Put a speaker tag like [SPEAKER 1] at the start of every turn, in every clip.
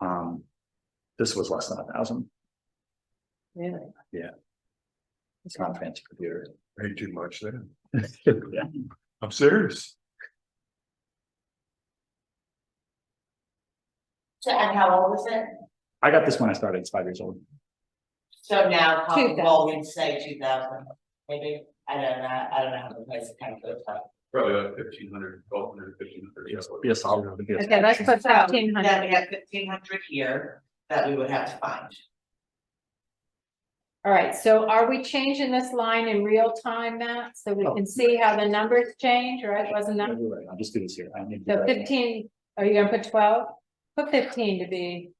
[SPEAKER 1] Um, This was less than a thousand,
[SPEAKER 2] Really?
[SPEAKER 1] Yeah. it's
[SPEAKER 2] Okay.
[SPEAKER 1] not a fancy computer.
[SPEAKER 3] Paid too much there.
[SPEAKER 1] Yeah.
[SPEAKER 3] I'm serious.
[SPEAKER 4] So, and how old is it?
[SPEAKER 1] I got this when I started, it's five years old.
[SPEAKER 4] So now, how,
[SPEAKER 2] 2000.
[SPEAKER 4] well, we'd say two thousand, maybe, I don't know, I don't know how the price kind of goes up.
[SPEAKER 3] Probably about fifteen hundred, twelve hundred, fifteen hundred.
[SPEAKER 1] Yes, be a solid. it'd be a-
[SPEAKER 2] Okay, let's put fifteen
[SPEAKER 4] Then we
[SPEAKER 2] hundred.
[SPEAKER 4] have fifteen hundred here that we would have to find.
[SPEAKER 2] All right, so are we changing this line in real time, Matt? So we can see how the numbers change, right? Wasn't
[SPEAKER 1] No,
[SPEAKER 2] that?
[SPEAKER 1] you're right, I'll just do this here. I need to do
[SPEAKER 2] So
[SPEAKER 1] that.
[SPEAKER 2] fifteen, are you gonna put twelve? Put fifteen to be,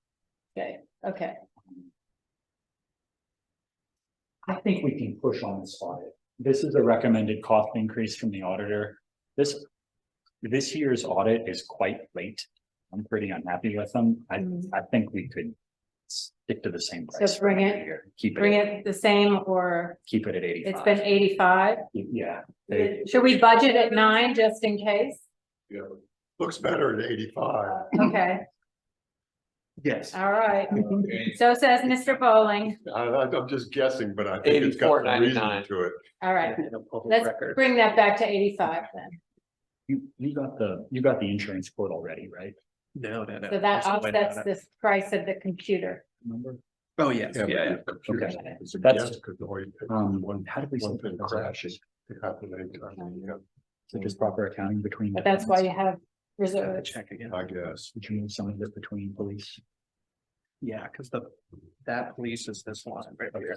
[SPEAKER 2] okay, okay.
[SPEAKER 1] I think we can push on this audit. This is a recommended cost increase from the auditor. This, this year's audit is quite late. I'm pretty unhappy with them. I,
[SPEAKER 2] Mhm.
[SPEAKER 1] I think we could stick to the same
[SPEAKER 2] So
[SPEAKER 1] price.
[SPEAKER 2] bring it-
[SPEAKER 1] here. Keep
[SPEAKER 2] Bring
[SPEAKER 1] it,
[SPEAKER 2] it the same or
[SPEAKER 1] keep it at
[SPEAKER 2] it's been
[SPEAKER 1] eighty-five.
[SPEAKER 2] eighty-five?
[SPEAKER 1] Yeah, they-
[SPEAKER 2] Should we budget at nine just in case?
[SPEAKER 3] Looks better at eighty-five.
[SPEAKER 2] Okay,
[SPEAKER 1] yes.
[SPEAKER 2] all right. So says Mr. Bowling.
[SPEAKER 3] I, I'm just guessing, but I think it's got some reason
[SPEAKER 5] 84.99.
[SPEAKER 3] to it.
[SPEAKER 2] All right,
[SPEAKER 1] In a public
[SPEAKER 2] let's
[SPEAKER 1] record.
[SPEAKER 2] bring that back to eighty-five then.
[SPEAKER 1] You, you got the, you got the insurance quote already, right?
[SPEAKER 5] No, no, no.
[SPEAKER 2] So that
[SPEAKER 5] that's the way
[SPEAKER 2] offsets
[SPEAKER 5] that-
[SPEAKER 2] this price of the computer.
[SPEAKER 1] Remember?
[SPEAKER 5] Oh, yes, yeah,
[SPEAKER 3] but
[SPEAKER 5] yeah.
[SPEAKER 3] the computer's
[SPEAKER 1] Okay.
[SPEAKER 3] just a
[SPEAKER 1] That's-
[SPEAKER 3] guess, 'cause the way it-
[SPEAKER 1] Um,
[SPEAKER 3] One-
[SPEAKER 1] how did we?
[SPEAKER 3] one
[SPEAKER 1] set the
[SPEAKER 3] thing
[SPEAKER 1] price?
[SPEAKER 3] crashes. It happened anytime, yeah,
[SPEAKER 1] So just proper accounting between.
[SPEAKER 2] But that's why you have
[SPEAKER 5] Have to
[SPEAKER 2] reserves.
[SPEAKER 5] Check again.
[SPEAKER 3] I guess.
[SPEAKER 1] Would you move some of this between police?
[SPEAKER 5] Yeah, because the, that police is this line right here,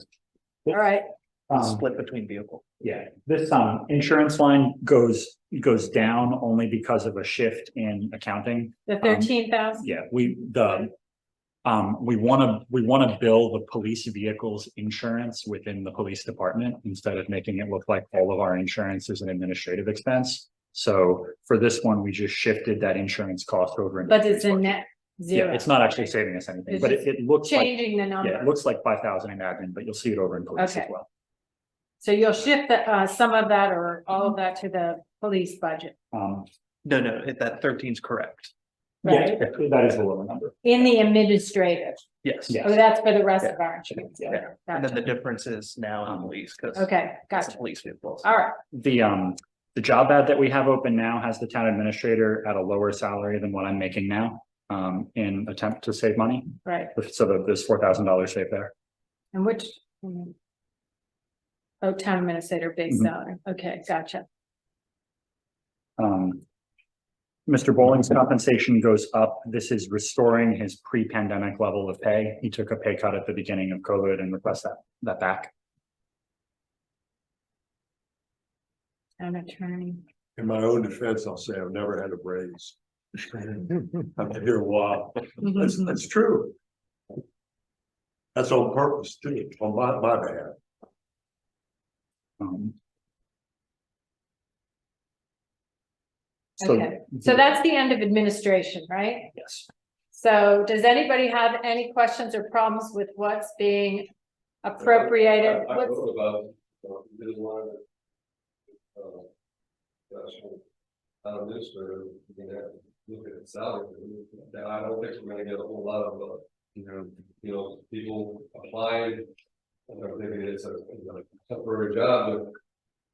[SPEAKER 2] All right,
[SPEAKER 1] Um,
[SPEAKER 5] split between vehicle.
[SPEAKER 1] Yeah, this um insurance line goes goes down only because of a shift in accounting.
[SPEAKER 2] the thirteen thousand,
[SPEAKER 1] Um, Yeah, we the. Um, we wanna, we wanna bill the police vehicles insurance within the police department instead of making it look like all of our insurance is an administrative expense. So for this one, we just shifted that insurance cost over. into
[SPEAKER 2] but it's
[SPEAKER 1] police
[SPEAKER 2] a
[SPEAKER 1] budget.
[SPEAKER 2] net
[SPEAKER 1] Yeah,
[SPEAKER 2] zero,
[SPEAKER 1] it's not actually saving us anything,
[SPEAKER 2] It's
[SPEAKER 1] but it
[SPEAKER 2] just
[SPEAKER 1] it looks like,
[SPEAKER 2] changing the
[SPEAKER 1] yeah, it
[SPEAKER 2] number.
[SPEAKER 1] looks like five thousand in admin, but you'll see it over in police as
[SPEAKER 2] Okay.
[SPEAKER 1] well.
[SPEAKER 2] So you'll shift the, uh, some of that or all
[SPEAKER 1] Mm-hmm.
[SPEAKER 2] of that to the police budget,
[SPEAKER 1] Um,
[SPEAKER 5] No, no, it- that thirteen's correct.
[SPEAKER 1] yeah,
[SPEAKER 2] right?
[SPEAKER 1] that is the lower number.
[SPEAKER 2] In the administrative,
[SPEAKER 5] Yes.
[SPEAKER 1] Yeah.
[SPEAKER 2] oh, that's for the rest of our insurance.
[SPEAKER 1] Yeah.
[SPEAKER 2] Okay,
[SPEAKER 5] And then the
[SPEAKER 2] gotcha.
[SPEAKER 5] difference is now in police because
[SPEAKER 2] Okay,
[SPEAKER 5] it's a
[SPEAKER 2] gotcha.
[SPEAKER 5] police vehicle.
[SPEAKER 2] All right,
[SPEAKER 1] the um, the job ad that we have open now has the town administrator at a lower salary than what I'm making now. Um, in attempt to save money,
[SPEAKER 2] right.
[SPEAKER 1] so that there's four thousand dollars saved there.
[SPEAKER 2] And which? mm. Oh, town administrator base
[SPEAKER 1] Mhm.
[SPEAKER 2] salary. Okay, gotcha.
[SPEAKER 1] Um. Mr. Bowling's compensation goes up. This is restoring his pre-pandemic level of pay. He took a pay cut at the beginning of COVID and requests that, that back.
[SPEAKER 2] Town attorney.
[SPEAKER 3] In my own defense, I'll say I've never had a raise. I've been here a while. That's,
[SPEAKER 2] Mm-hmm.
[SPEAKER 3] that's true. That's on purpose too, on my, my behalf.
[SPEAKER 1] Um.
[SPEAKER 2] Okay, so that's the end of administration, right?
[SPEAKER 1] Yes.
[SPEAKER 2] So does anybody have any questions or problems with what's being appropriated?
[SPEAKER 6] I- I
[SPEAKER 2] What's-
[SPEAKER 6] wrote about, uh, this line of, uh, that's from, uh, this, or, you know, look at the salary, that I don't think we're gonna get a whole lot of, uh, you know, you know, people applying. I don't think it's a you know, temporary job, but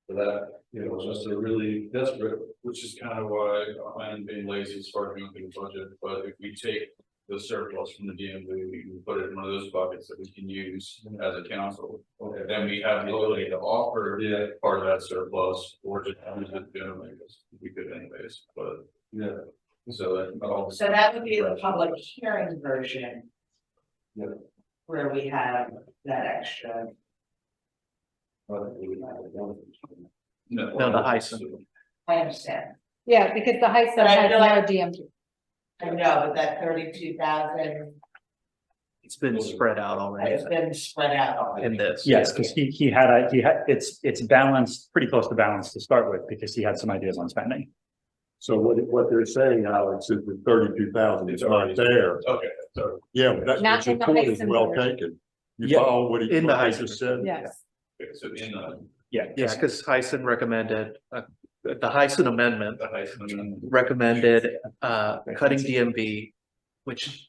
[SPEAKER 6] for that, you know, just a really desperate,
[SPEAKER 7] Which is kind of why I'm being lazy as far as moving the budget, but if we take the surplus from the DMV, we can put it in one of those buckets that we can use as a council.
[SPEAKER 6] okay,
[SPEAKER 7] Then we have the ability to offer
[SPEAKER 6] yeah,
[SPEAKER 7] part of that surplus or just use it generally, because we could anyways, but
[SPEAKER 6] yeah.
[SPEAKER 7] so that. all-
[SPEAKER 4] So that would be the public hearing version.
[SPEAKER 6] Yeah.
[SPEAKER 4] Where we have that extra.
[SPEAKER 6] but we would have it.
[SPEAKER 5] No, the Heisen.
[SPEAKER 4] I understand.
[SPEAKER 2] Yeah, because the high school
[SPEAKER 4] But I
[SPEAKER 2] has
[SPEAKER 4] feel like-
[SPEAKER 2] no DMT.
[SPEAKER 4] I know, but that thirty-two thousand
[SPEAKER 5] It's been spread out already
[SPEAKER 4] has been spread out already.
[SPEAKER 5] in this.
[SPEAKER 1] Yes, because he, he had a, he had, it's, it's balanced, pretty close to balance to start with, because he had some ideas on spending.
[SPEAKER 3] So what, what they're saying, Alex, is the thirty-two thousand is
[SPEAKER 7] It's
[SPEAKER 3] not
[SPEAKER 7] already-
[SPEAKER 3] there.
[SPEAKER 7] Okay, so
[SPEAKER 3] Yeah, but that's,
[SPEAKER 2] Not
[SPEAKER 3] but your
[SPEAKER 2] in the
[SPEAKER 3] point is
[SPEAKER 2] Heisen
[SPEAKER 3] well
[SPEAKER 2] version.
[SPEAKER 3] taken. You
[SPEAKER 5] Yeah,
[SPEAKER 3] follow what he,
[SPEAKER 5] in the
[SPEAKER 3] what he
[SPEAKER 5] Heisen
[SPEAKER 3] just said.
[SPEAKER 2] Yes,
[SPEAKER 7] okay, so in the,
[SPEAKER 5] Yeah, because Heisen recommended, uh, the Heisen amendment
[SPEAKER 7] the Heisen.
[SPEAKER 5] recommended, uh, cutting DMV, which